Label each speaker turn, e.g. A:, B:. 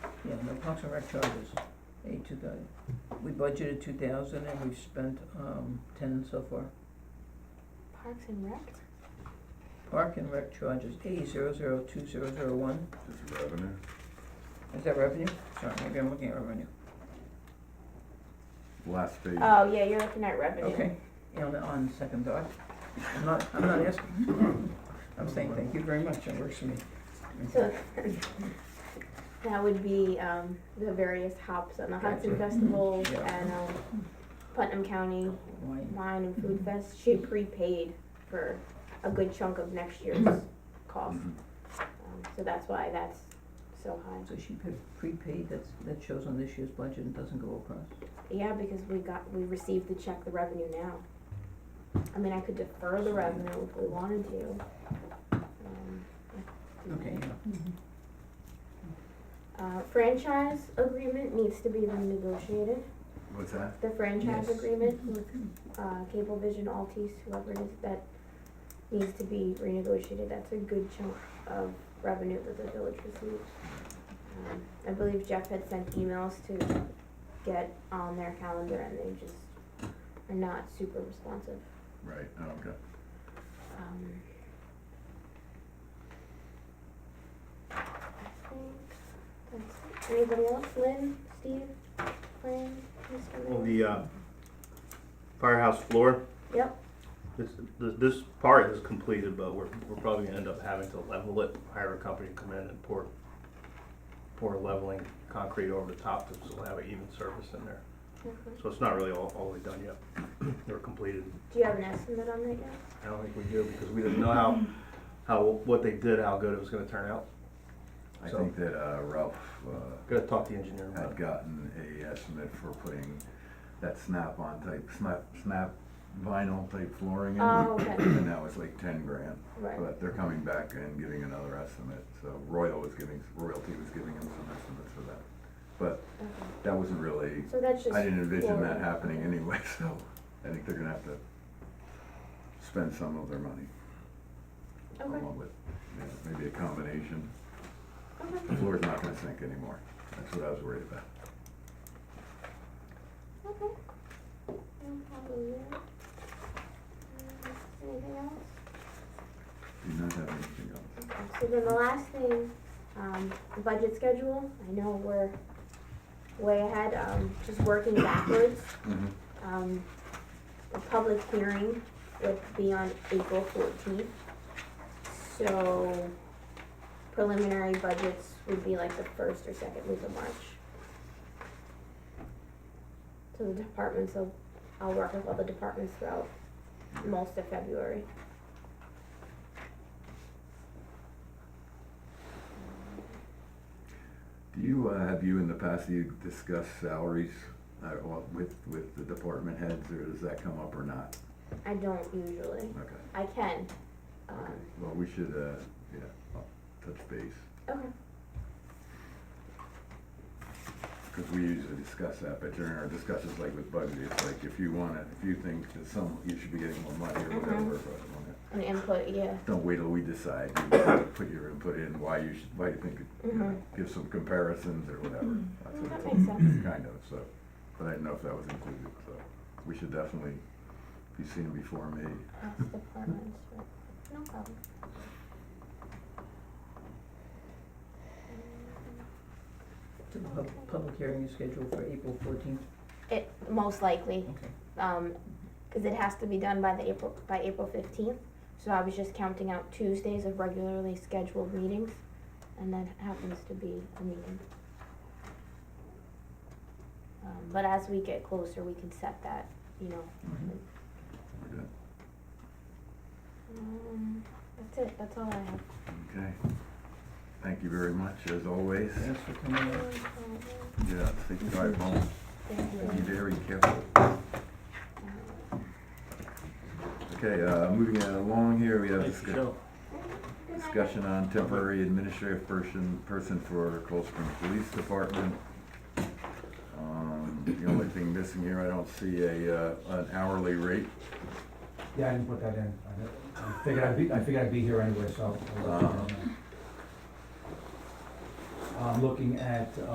A: um, the Parks and Rec charges, eight to the, we budgeted two thousand and we've spent, um, ten so far.
B: Parks and Rec?
A: Park and Rec charges, A zero zero two zero zero one,
C: This is revenue.
A: is that revenue? Sorry, maybe I'm looking at revenue,
C: Last page.
B: Oh, yeah, you're looking at revenue.
A: okay, on, on second thought, I'm not, I'm not asking, I'm saying thank you very much, it works for me.
B: So that would be um, the various hops on the Hudson
A: Gotcha.
B: Festival
A: Yeah.
B: and um, Putnam County
A: Why-
B: Wine and Food Fest. She prepaid for a good chunk of next year's
A: Mm-hmm.
B: cost.
C: Mhm.
B: Um, so that's why that's so high.
A: So she pre- prepaid, that's, that shows on this year's budget and doesn't go across.
B: Yeah, because we got we received the check, the revenue now. I mean, I could defer the revenue if we wanted to. Um, yeah.
A: Okay, yeah.
B: Mm-hmm. Uh, franchise agreement needs to be renegotiated.
C: What's that?
B: the franchise
A: Yes.
B: agreement with, uh, Cablevision, Altice, whoever it is, that needs to be renegotiated, that's a good chunk of revenue that the village receives. Um, I believe Jeff had sent emails to get on their calendar and they just are not super responsive.
C: Right, oh, okay.
B: Um, I think that's it. Anybody else? Lynn, Steve, Fran, Mr.
D: Well,
B: Mayor?
D: the uh, firehouse floor,
B: Yep,
D: this, this this part is completed, but we're, we're probably gonna end up having to level it, hire a company to come in and pour, pour leveling concrete over the top, so we'll have an even surface in there.
B: okay.
D: So it's not really all, all the way done yet, or completed.
B: Do you have an estimate on that yet?
D: I don't think we do, because we didn't know how, how, what they did, how good it was gonna turn out.
C: I
D: So-
C: think that uh, Ralph uh,
D: Gotta talk to the engineer about
C: had
D: it.
C: gotten a estimate for putting that snap-on type, snap, snap vinyl type flooring in.
B: Oh, okay.
C: And that was like ten grand,
B: Right,
C: but they're coming back and giving another estimate, so Royal was giving, Royalty was giving him some estimates for that. But
B: okay.
C: that wasn't really,
B: So that's just.
C: I didn't envision that
B: flooring.
C: happening anyway, so I think they're gonna have to spend some of their money.
B: Okay,
C: along with, you know, maybe a combination.
B: okay,
C: The floor's not gonna sink anymore. That's what I was worried about.
B: okay. No problem there. Um, Anything else?
C: Do you not have anything else?
B: Okay, so then the last thing, um, the budget schedule, I know we're way ahead, um, just working backwards. Um, the public hearing would be on April fourteenth. So preliminary budgets would be like the first or second week of March. So the departments, will I'll work with all the departments throughout most of February.
C: Do you, uh, have you in the past, you discussed salaries, uh, well, with, with the department heads, or does that come up or not?
B: I don't usually,
C: Okay,
B: I can,
C: okay.
B: um,
C: Well, we should, uh, yeah, I'll touch base,
B: okay,
C: because we usually discuss that, but during our discussions, like with budget, it's like, if you wanna, if you think that some, you should be getting more money or whatever, but, okay.
B: and input, yeah,
C: Don't wait till we decide, You gotta put your input in, why you should, why you think, it- you know, give some comparisons or whatever. That's
B: Mm,
C: what
B: Mm-hmm. that
C: it's
B: makes
C: all-
B: sense.
C: Kind of, so, but I didn't know if that was included, so we should definitely be seen before me.
B: that's departments, right, no problem.
A: The pub- public hearing is scheduled for April fourteenth,
B: It, most likely,
A: okay.
B: um, cause it has to be done by the April, by April fifteenth, so I was just counting out Tuesdays of regularly scheduled meetings, and that happens to be a meeting. Um, but as we get closer, we can set that, you know,
C: We're good.
B: um, that's it, that's all I have.
C: Okay. Thank you very much, as always.
A: Thanks for coming in.
C: Yeah, safe drive home.
B: Thank
C: Be
B: you.
C: very careful. Okay, uh, moving along here, we have
D: Thank you,
C: discussion.
D: Joe.
C: Discussion on temporary administrative person, person for Cold Spring Police Department. Um, The only thing missing here, I don't see a, uh, an hourly rate.
E: Yeah, I didn't put that in. I didn't- I figured I'd be, I figured I'd be here anyway, so. I'll let you know. I'm looking at, uh,